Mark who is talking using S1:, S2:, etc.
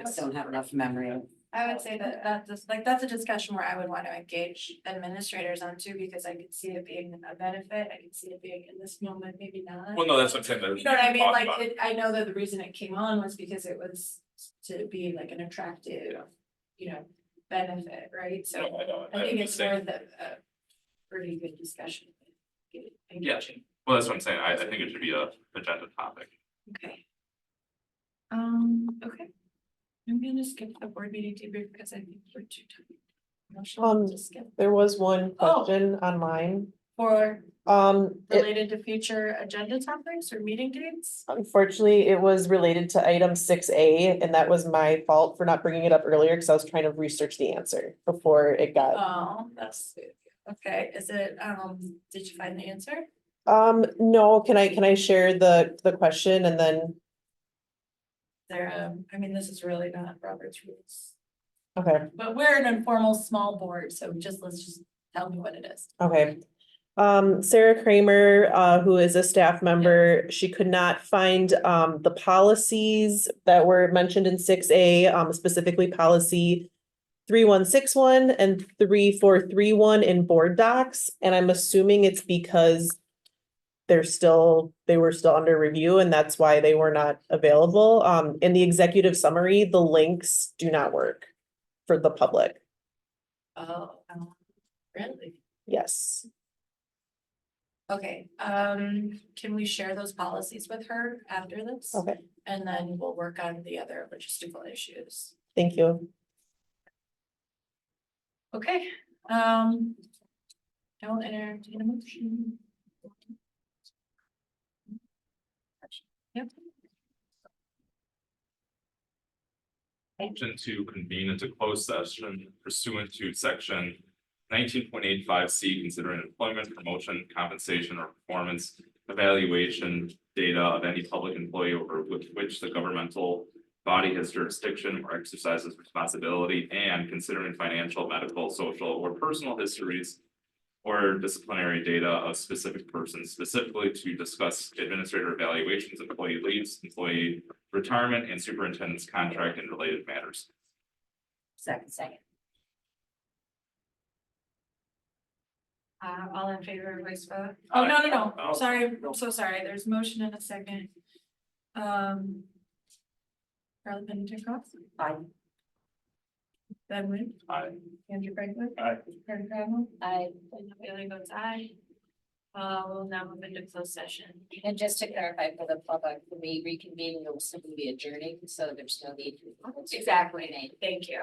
S1: just don't have enough memory.
S2: I would say that that's just like, that's a discussion where I would want to engage administrators on too, because I could see it being a benefit, I could see it being in this moment, maybe not.
S3: Well, no, that's what I'm saying. that we
S2: You know what I mean?
S3: talked
S2: Like,
S3: about it.
S2: it, I know that the reason it came on was because it was to be like an attractive, you know, benefit, right? So
S3: No, I know,
S2: I
S3: I'm
S2: think
S3: just
S2: it's
S3: saying-
S2: worth a, a pretty good discussion. Get it
S3: Yeah,
S2: engaging.
S3: well, that's what I'm saying, I, I think it should be a agenda topic.
S2: Okay. Um, okay. I'm gonna skip the board meeting debrief because I think we're too tired.
S4: Um,
S2: Just skip.
S4: There was one
S2: Oh.
S4: question online.
S2: For
S4: Um, it-
S2: related to future agenda topics or meeting dates?
S4: unfortunately, it was related to item six A, and that was my fault for not bringing it up earlier, because I was trying to research the answer before it got.
S2: Oh, that's, okay, is it, um, did you find the answer?
S4: Um, no, can I, can I share the, the question and then,
S2: There, um, I mean, this is really not Robert's rules.
S4: okay.
S2: But we're an informal, small board, so just, let's just tell me what it is.
S4: Okay. Um, Sarah Kramer, uh, who is a staff member, she could not find, um, the policies that were mentioned in six A, um, specifically policy three one six one and three four three one in board docs, and I'm assuming it's because they're still, they were still under review and that's why they were not available. Um, in the executive summary, the links do not work for the public.
S2: Oh, um, really?
S4: Yes.
S2: Okay, um, can we share those policies with her after this?
S4: Okay.
S2: And then we'll work on the other logistical issues.
S4: Thank you.
S2: Okay, um. I will entertain a motion. Yep,
S3: Motion to convene into closed session pursuant to section nineteen point eight five C, considering employment, promotion, compensation, or performance evaluation data of any public employee over with which the governmental body has jurisdiction or exercises responsibility, and considering financial, medical, social, or personal histories or disciplinary data of specific persons specifically to discuss administrator evaluations, employee leaves, employee retirement and superintendent's contract and related matters.
S1: Second, second.
S2: uh, all in favor, voice vote? Oh, no, no,
S3: Oh.
S2: no, sorry, I'm so sorry, there's motion and a second. Um. Carla Pennington Cross,
S1: Aye.
S2: Ben Wynn,
S3: Aye.
S2: Andrew Franklin.
S3: Aye.
S2: Karen Cravel.
S1: I,
S2: Linda Bailey votes aye. Uh, we'll now move into closed session.
S1: and just to clarify for the public, when we reconvene, we'll simply be adjourning, so there's no need. to-
S2: Exactly. Thank you.